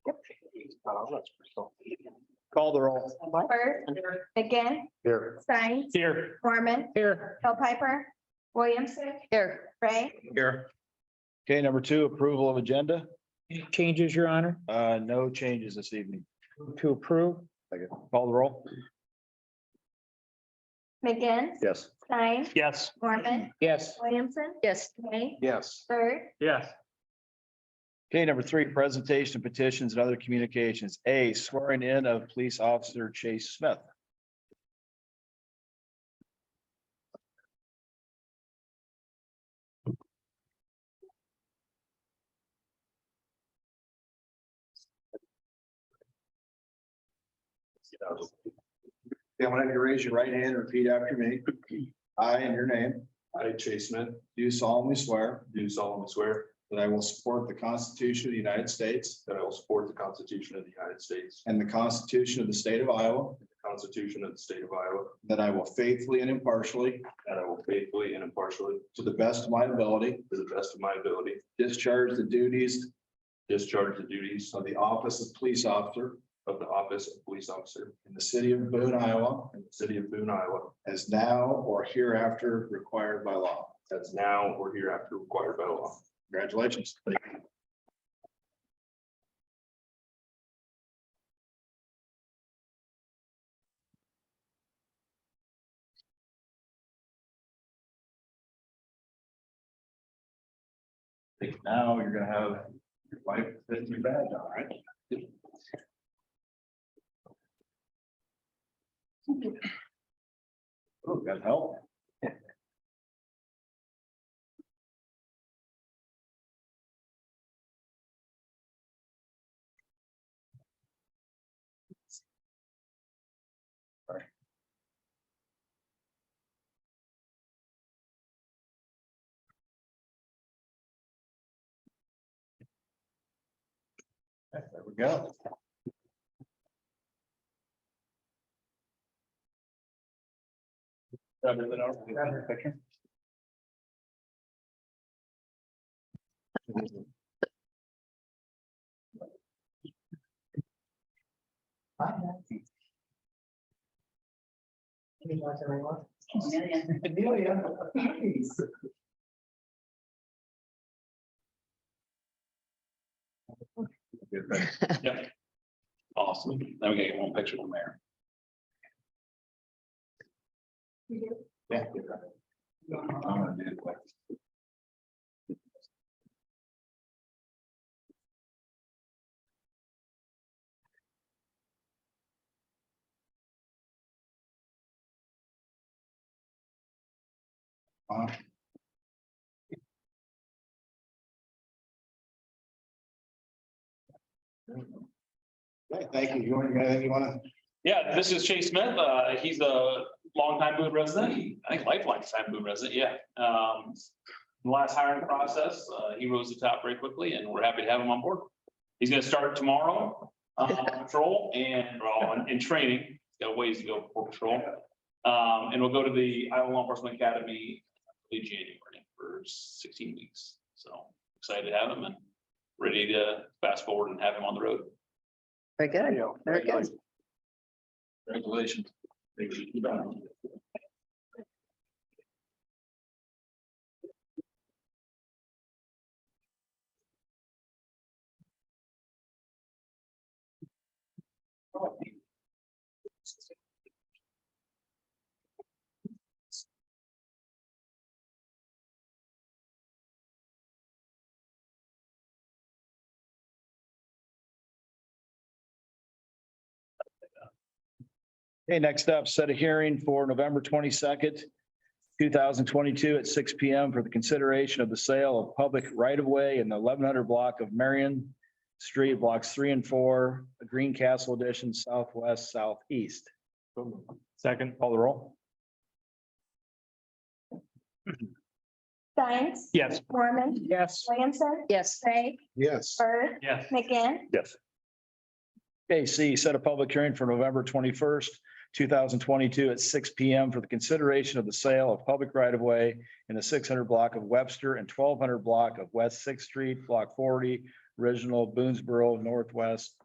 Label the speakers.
Speaker 1: Call the roll.
Speaker 2: Bird, again,
Speaker 1: Here.
Speaker 2: Stein,
Speaker 1: Here.
Speaker 2: Mormon,
Speaker 1: Here.
Speaker 2: Hill Piper, Williamson,
Speaker 3: Here,
Speaker 2: Ray,
Speaker 1: Here. Okay, number two, approval of agenda.
Speaker 4: Changes, Your Honor,
Speaker 1: Uh, no changes this evening.
Speaker 4: to approve,
Speaker 1: Call the roll.
Speaker 2: McGinn,
Speaker 1: Yes.
Speaker 2: Stein,
Speaker 1: Yes.
Speaker 2: Mormon,
Speaker 4: yes.
Speaker 2: Williamson,
Speaker 3: yes,
Speaker 2: Ray,
Speaker 1: Yes.
Speaker 2: Bird,
Speaker 4: Yes.
Speaker 1: Okay, number three, presentation of petitions and other communications. A swearing in of police officer Chase Smith. Okay, I'm gonna have you raise your right hand and repeat after me. I, in your name,
Speaker 5: I, Chase Smith,
Speaker 1: do solemnly swear
Speaker 5: do solemnly swear
Speaker 1: that I will support the Constitution of the United States
Speaker 5: that I will support the Constitution of the United States
Speaker 1: and the Constitution of the State of Iowa,
Speaker 5: and the Constitution of the State of Iowa,
Speaker 1: that I will faithfully and impartially,
Speaker 5: that I will faithfully and impartially,
Speaker 1: to the best of my ability,
Speaker 5: to the best of my ability,
Speaker 1: discharge the duties
Speaker 5: discharge the duties
Speaker 1: of the office of police officer
Speaker 5: of the office of police officer
Speaker 1: in the city of Boone, Iowa,
Speaker 5: in the city of Boone, Iowa,
Speaker 1: as now or hereafter required by law.
Speaker 5: as now or hereafter required by law.
Speaker 1: Congratulations. I think now you're gonna have your wife fit your badge on, right? Oh, got help. There we go. Grab it, Lenore. Grab her picture.
Speaker 5: Awesome. Now we gotta get one picture from there.
Speaker 1: Yeah. I'm gonna do it like- Uh, Okay, Thank you. You want, you got anything you wanna?
Speaker 6: Yeah, this is Chase Smith. Uh, he's a longtime Boone resident. I think lifelong time Boone resident, yeah. Um, the last hiring process, uh, he rose to the top very quickly and we're happy to have him on board. He's gonna start tomorrow, uh, on patrol and, well, in- in training, got a ways to go before patrol. Um, and we'll go to the Iowa Law Enforcement Academy in January for sixteen weeks. So excited to have him and ready to fast forward and have him on the road.
Speaker 3: very good. Very good.
Speaker 1: Congratulations. Okay, next up, set a hearing for November twenty-second, two thousand twenty-two at six P M for the consideration of the sale of public right-of-way in the eleven hundred block of Marion Street, blocks three and four, Greencastle Edition, southwest, southeast. Second. Call the roll.
Speaker 2: Stein,
Speaker 4: Yes.
Speaker 2: Mormon,
Speaker 4: Yes.
Speaker 2: Williamson,
Speaker 3: Yes,
Speaker 2: Ray,
Speaker 1: Yes.
Speaker 2: Bird,
Speaker 6: Yes.
Speaker 2: McGinn,
Speaker 1: Okay, C, set a public hearing for November twenty-first, two thousand twenty-two at six P M for the consideration of the sale of public right-of-way in the six hundred block of Webster and twelve hundred block of West Sixth Street, Block forty, original Boonesboro Northwest